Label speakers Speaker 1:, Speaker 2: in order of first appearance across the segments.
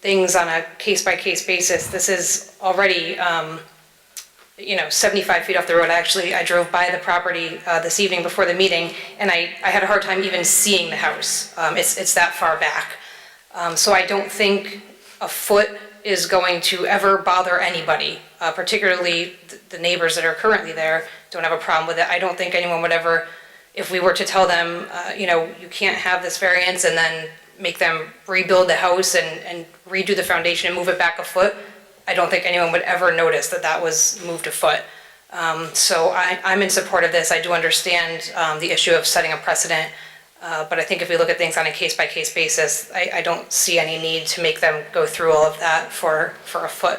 Speaker 1: things on a case-by-case basis. This is already, um, you know, 75 feet off the road. Actually, I drove by the property uh, this evening before the meeting, and I, I had a hard time even seeing the house. Um, It's, it's that far back. Um, So I don't think a foot is going to ever bother anybody, uh, particularly th- the neighbors that are currently there don't have a problem with it. I don't think anyone would ever, if we were to tell them, uh, you know, you can't have this variance and then make them rebuild the house and and redo the foundation and move it back a foot, I don't think anyone would ever notice that that was moved a foot. Um, So I- I'm in support of this. I do understand um, the issue of setting a precedent. Uh, But I think if we look at things on a case-by-case basis, I, I don't see any need to make them go through all of that for, for a foot.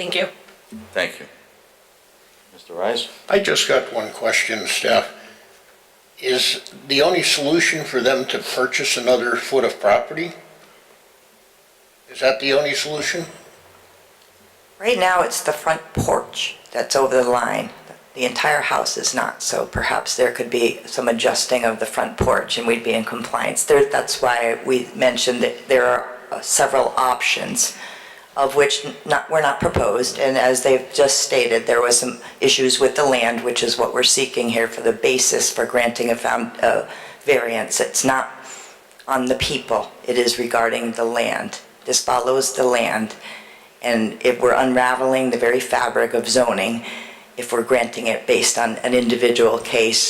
Speaker 1: Thank you.
Speaker 2: Thank you. Mr. Rice?
Speaker 3: I just got one question, Steph. Is the only solution for them to purchase another foot of property? Is that the only solution?
Speaker 4: Right now, it's the front porch that's over the line. The entire house is not, so perhaps there could be some adjusting of the front porch and we'd be in compliance. There, that's why we mentioned that there are uh, several options, of which not, were not proposed. And as they've just stated, there was some issues with the land, which is what we're seeking here for the basis for granting a found, uh, variance. It's not on the people, it is regarding the land. This follows the land. And if we're unraveling the very fabric of zoning, if we're granting it based on an individual case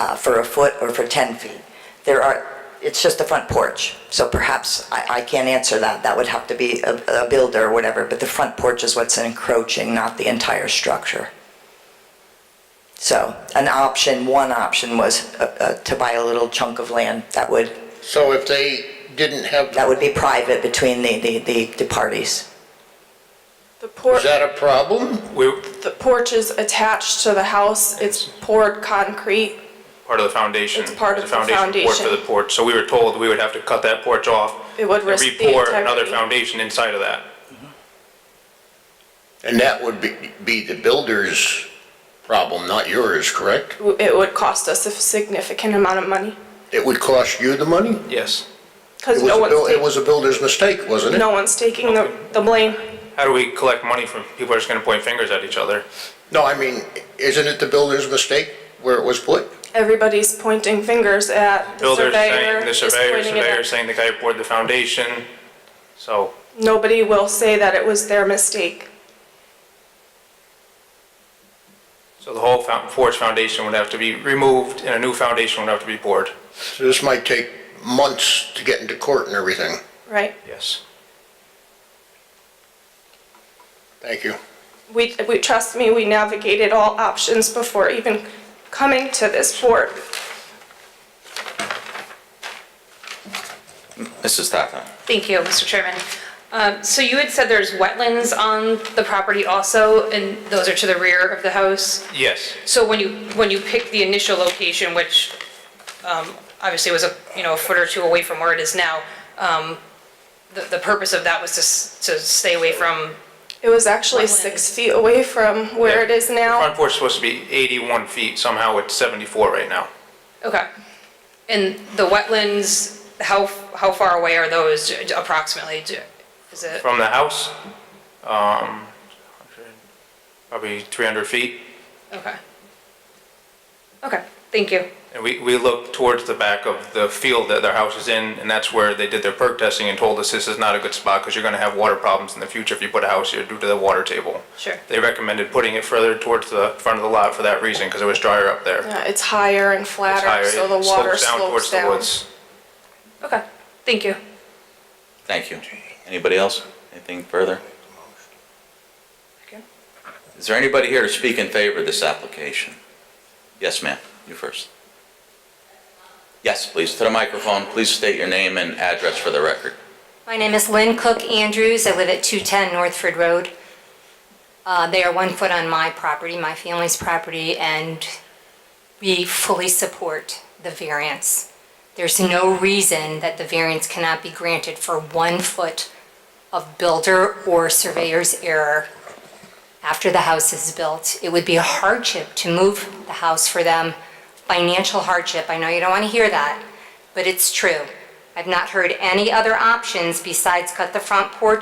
Speaker 4: uh, for a foot or for 10 feet, there are, it's just the front porch. So perhaps, I, I can't answer that, that would have to be a, a builder or whatever, but the front porch is what's encroaching, not the entire structure. So, an option, one option was uh, uh, to buy a little chunk of land that would,
Speaker 3: So if they didn't have,
Speaker 4: that would be private between the, the- the, the parties.
Speaker 5: The porch,
Speaker 3: is that a problem?
Speaker 6: We're,
Speaker 5: the porch is attached to the house, it's poured concrete.
Speaker 6: part of the foundation.
Speaker 5: It's part of
Speaker 6: There's
Speaker 5: the
Speaker 6: a port for
Speaker 5: foundation.
Speaker 6: the porch, so we were told we would have to cut that porch off.
Speaker 5: It would risk the
Speaker 6: And re-pour another
Speaker 5: integrity.
Speaker 6: foundation inside of that.
Speaker 3: And that would be, be the builder's problem, not yours, correct?
Speaker 5: It would cost us a significant amount of money,
Speaker 3: It would cost you the money?
Speaker 6: Yes.
Speaker 3: It
Speaker 5: because
Speaker 3: was,
Speaker 5: no
Speaker 3: a
Speaker 5: one's,
Speaker 3: buil- it
Speaker 5: ta-
Speaker 3: was a builder's mistake, wasn't it?
Speaker 5: no one's taking the, the blame.
Speaker 6: How do we collect money from, people are just gonna point fingers at each other?
Speaker 3: No, I mean, isn't it the builder's mistake where it was put?
Speaker 5: Everybody's pointing fingers at the
Speaker 6: Builders
Speaker 5: surveyor.
Speaker 6: saying, the
Speaker 5: is
Speaker 6: surveyor,
Speaker 5: pointing it at-
Speaker 6: surveyor saying the guy who poured the foundation, so.
Speaker 5: Nobody will say that it was their mistake.
Speaker 6: So the whole foun- porch foundation would have to be removed and a new foundation would have to be poured.
Speaker 3: So this might take months to get into court and everything.
Speaker 5: Right.
Speaker 6: Yes.
Speaker 3: Thank you.
Speaker 5: We, we, trust me, we navigated all options before even coming to this board.
Speaker 2: Mrs. Tata?
Speaker 1: Thank you, Mr. Chairman. Um, So you had said there's wetlands on the property also, and those are to the rear of the house?
Speaker 6: Yes.
Speaker 1: So when you, when you pick the initial location, which um, obviously was a, you know, a foot or two away from where it is now, um, the, the purpose of that was to, s- to stay away from,
Speaker 5: It was actually six feet away from where it is
Speaker 6: The
Speaker 5: now.
Speaker 6: Front porch is supposed to be 81 feet, somehow it's 74 right now.
Speaker 1: okay. And the wetlands, how, how far away are those approximately? Do- Is it,
Speaker 6: From the house, um, probably 300 feet.
Speaker 1: okay. Okay, thank you.
Speaker 6: And we, we looked towards the back of the field that their house is in, and that's where they did their perk testing and told us this is not a good spot because you're going to have water problems in the future if you put a house here due to the water table.
Speaker 1: Sure.
Speaker 6: They recommended putting it further towards the front of the lot for that reason because it was drier up there.
Speaker 5: Yeah, It's higher and
Speaker 6: It's higher,
Speaker 5: flatter, so the
Speaker 6: it
Speaker 5: water
Speaker 6: towards
Speaker 5: slopes
Speaker 6: the
Speaker 5: down.
Speaker 6: woods.
Speaker 1: Okay, thank you.
Speaker 2: Thank you. Anybody else? Anything further? Is there anybody here to speak in favor of this application? Yes, ma'am, you first. Yes, please, to the microphone, please state your name and address for the record.
Speaker 7: My name is Lynn Cook Andrews. I live at 210 Northford Road. Uh, They are one foot on my property, my family's property, and we fully support the variance. There's no reason that the variance cannot be granted for one foot of builder or surveyor's error after the house is built. It would be a hardship to move the house for them, financial hardship. I know you don't want to hear that, but it's true.
Speaker 1: I've not heard any other options besides cut the front porch